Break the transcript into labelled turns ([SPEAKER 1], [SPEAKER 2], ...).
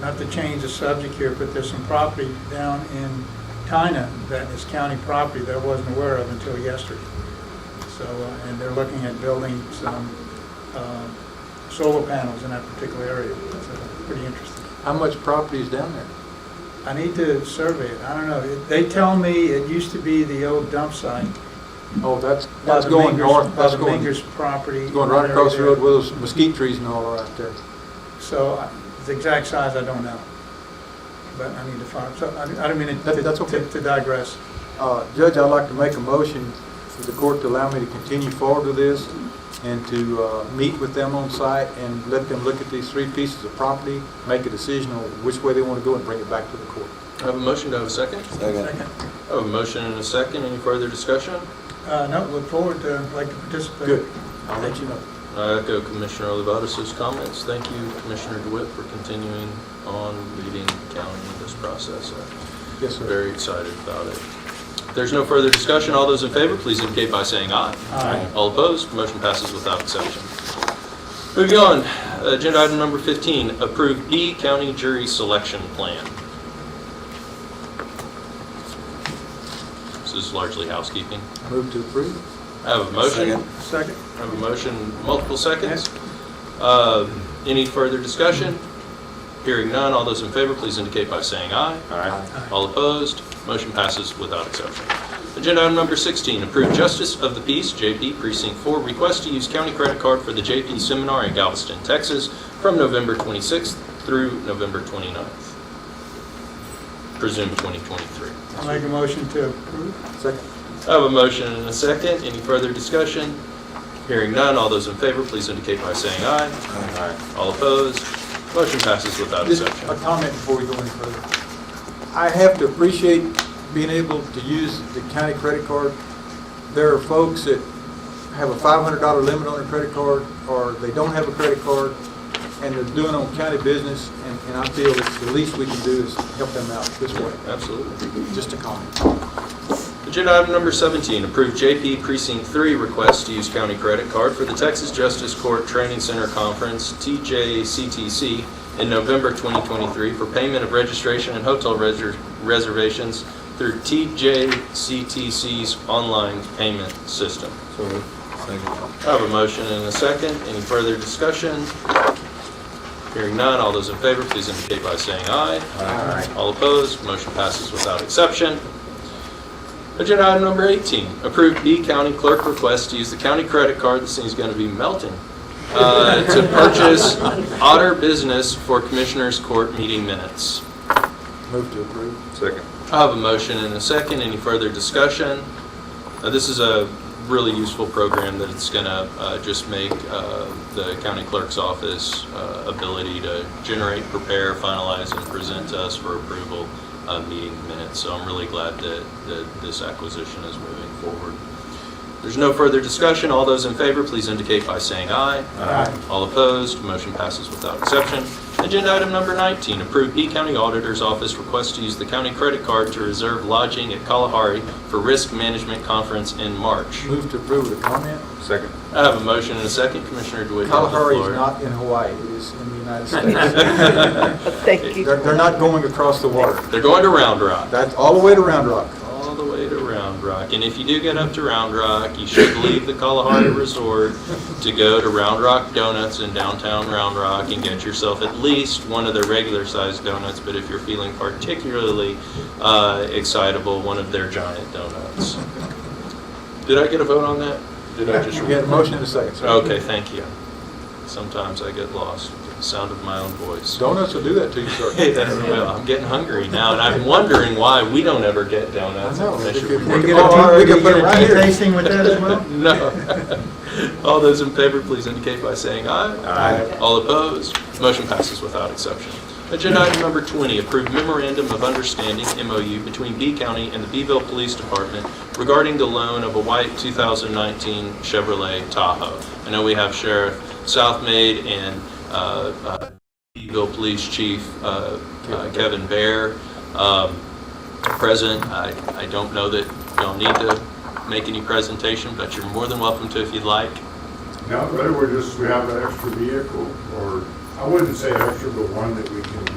[SPEAKER 1] not to change the subject here, but there's some property down in Tyna that is county property that I wasn't aware of until yesterday. So, uh, and they're looking at building some uh, solar panels in that particular area. That's uh, pretty interesting.
[SPEAKER 2] How much property is down there?
[SPEAKER 1] I need to survey it. I don't know. It- They tell me it used to be the old dump site.
[SPEAKER 2] Oh, that's,
[SPEAKER 1] by
[SPEAKER 2] that's
[SPEAKER 1] the
[SPEAKER 2] going
[SPEAKER 1] Mingers-
[SPEAKER 2] north,
[SPEAKER 1] By
[SPEAKER 2] that's
[SPEAKER 1] the
[SPEAKER 2] going,
[SPEAKER 1] Mingers property.
[SPEAKER 2] going right
[SPEAKER 1] area
[SPEAKER 2] across the
[SPEAKER 1] there.
[SPEAKER 2] road with those mesquite trees and all right there.
[SPEAKER 1] So I- the exact size, I don't know. But I need to find, so I I don't mean it
[SPEAKER 2] That- that's
[SPEAKER 1] to-
[SPEAKER 2] okay.
[SPEAKER 1] to to digress.
[SPEAKER 2] Uh, Judge, I'd like to make a motion for the court to allow me to continue forward with this and to uh, meet with them on site and let them look at these three pieces of property, make a decision on which way they want to go and bring it back to the court.
[SPEAKER 3] I have a motion, do I have a second?
[SPEAKER 1] Second.
[SPEAKER 3] I have a motion and a second, any further discussion?
[SPEAKER 1] Uh, No, look forward to, like to participate.
[SPEAKER 2] Good. I'll let you know.
[SPEAKER 3] I echo Commissioner Olivatas's comments. Thank you, Commissioner DeWitt, for continuing on leading the county in this process.
[SPEAKER 2] Yes,
[SPEAKER 3] I'm
[SPEAKER 2] sir.
[SPEAKER 3] very excited about it. If There's no further discussion. All those in favor, please indicate by saying aye.
[SPEAKER 1] Aye.
[SPEAKER 3] All opposed, motion passes without exception. Moving on, agenda item number 15, approve D county jury selection plan. This is largely housekeeping.
[SPEAKER 2] Move to approve.
[SPEAKER 3] I have a motion.
[SPEAKER 4] Second.
[SPEAKER 1] Second.
[SPEAKER 3] I have a motion, multiple seconds. Uh, Any further discussion? Hearing none, all those in favor, please indicate by saying aye. Aye. All opposed, motion passes without exception. Agenda item number 16, approve Justice of the Peace, JP Precinct 4, request to use county credit card for the JP Seminar in Galveston, Texas, from November 26th through November 29th, presumed 2023.
[SPEAKER 1] I'll make a motion to approve.
[SPEAKER 2] Second.
[SPEAKER 3] I have a motion and a second. Any further discussion? Hearing none, all those in favor, please indicate by saying aye. Aye. All opposed? Motion passes without
[SPEAKER 2] Just
[SPEAKER 3] exception.
[SPEAKER 2] a comment before we go any further. I have to appreciate being able to use the county credit card. There are folks that have a $500 limit on their credit card, or they don't have a credit card, and they're doing on county business, and and I feel it's the least we can do is help them out this way.
[SPEAKER 3] Absolutely.
[SPEAKER 2] Just a comment.
[SPEAKER 3] Agenda item number 17, approve JP Precinct 3 request to use county credit card for the Texas Justice Court Training Center Conference, TJCTC, in November 2023 for payment of registration and hotel reser- reservations through TJCTC's online payment system.
[SPEAKER 4] Second.
[SPEAKER 3] I have a motion and a second. Any further discussion? Hearing none, all those in favor, please indicate by saying aye. Aye. All opposed, motion passes without exception. Agenda item number 18, approve B County Clerk request to use the county credit card, this thing's going to be melting, uh, to purchase Otter Business for Commissioners Court meeting minutes.
[SPEAKER 2] Move to approve.
[SPEAKER 4] Second.
[SPEAKER 3] I have a motion and a second. Any further discussion? Uh, This is a really useful program that it's going to just make uh, the county clerk's office uh, ability to generate, prepare, finalize, and present to us for approval uh, meeting minutes. So I'm really glad that that this acquisition is moving forward. There's no further discussion. All those in favor, please indicate by saying aye.
[SPEAKER 1] Aye.
[SPEAKER 3] All opposed, motion passes without exception. Agenda item number 19, approve E County Auditor's Office request to use the county credit card to reserve lodging at Kalahari for Risk Management Conference in March.
[SPEAKER 2] Move to approve with a comment.
[SPEAKER 4] Second.
[SPEAKER 3] I have a motion and a second. Commissioner DeWitt, you have the
[SPEAKER 2] Kalahari is
[SPEAKER 3] floor.
[SPEAKER 2] not in Hawaii, it is in the United States.
[SPEAKER 5] Thank you.
[SPEAKER 2] They're they're not going across the water.
[SPEAKER 3] They're going to Round Rock,
[SPEAKER 2] That's all the way to Round Rock.
[SPEAKER 3] all the way to Round Rock. And if you do get up to Round Rock, you should leave the Kalahari Resort to go to Round Rock Donuts in downtown Round Rock and get yourself at least one of their regular-sized donuts, but if you're feeling particularly uh, excitable, one of their giant donuts. Did I get a vote on that? Did I just?
[SPEAKER 2] We had a motion and a second. sir.
[SPEAKER 3] Okay, thank you. Sometimes I get lost, with the sound of my own voice.
[SPEAKER 2] Donuts will do that to you,
[SPEAKER 3] Hey,
[SPEAKER 2] sir.
[SPEAKER 3] that's well, I'm getting hungry now, and I'm wondering why we don't ever get donuts.
[SPEAKER 2] I know.
[SPEAKER 3] That should
[SPEAKER 2] They
[SPEAKER 3] be-
[SPEAKER 1] We
[SPEAKER 2] could-
[SPEAKER 1] get
[SPEAKER 2] Oh,
[SPEAKER 1] a
[SPEAKER 2] we
[SPEAKER 1] tea- we
[SPEAKER 2] can put
[SPEAKER 1] get
[SPEAKER 2] it right
[SPEAKER 1] a tea
[SPEAKER 2] here.
[SPEAKER 1] tasting with that as well?
[SPEAKER 3] No. All those in favor, please indicate by saying aye.
[SPEAKER 2] Aye.
[SPEAKER 3] All opposed, motion passes without exception. Agenda item number 20, approve memorandum of understanding, MOU, between B County and the Beeville Police Department regarding the loan of a white 2019 Chevrolet Tahoe. I know we have Sheriff Southmaid and uh, uh, Beeville Police Chief uh, uh, Kevin Bear um, present. I I don't know that y'all need to make any presentation, but you're more than welcome to if you'd like.
[SPEAKER 6] No, really, we're just, we have an extra vehicle, or, I wouldn't say extra, but one that we can do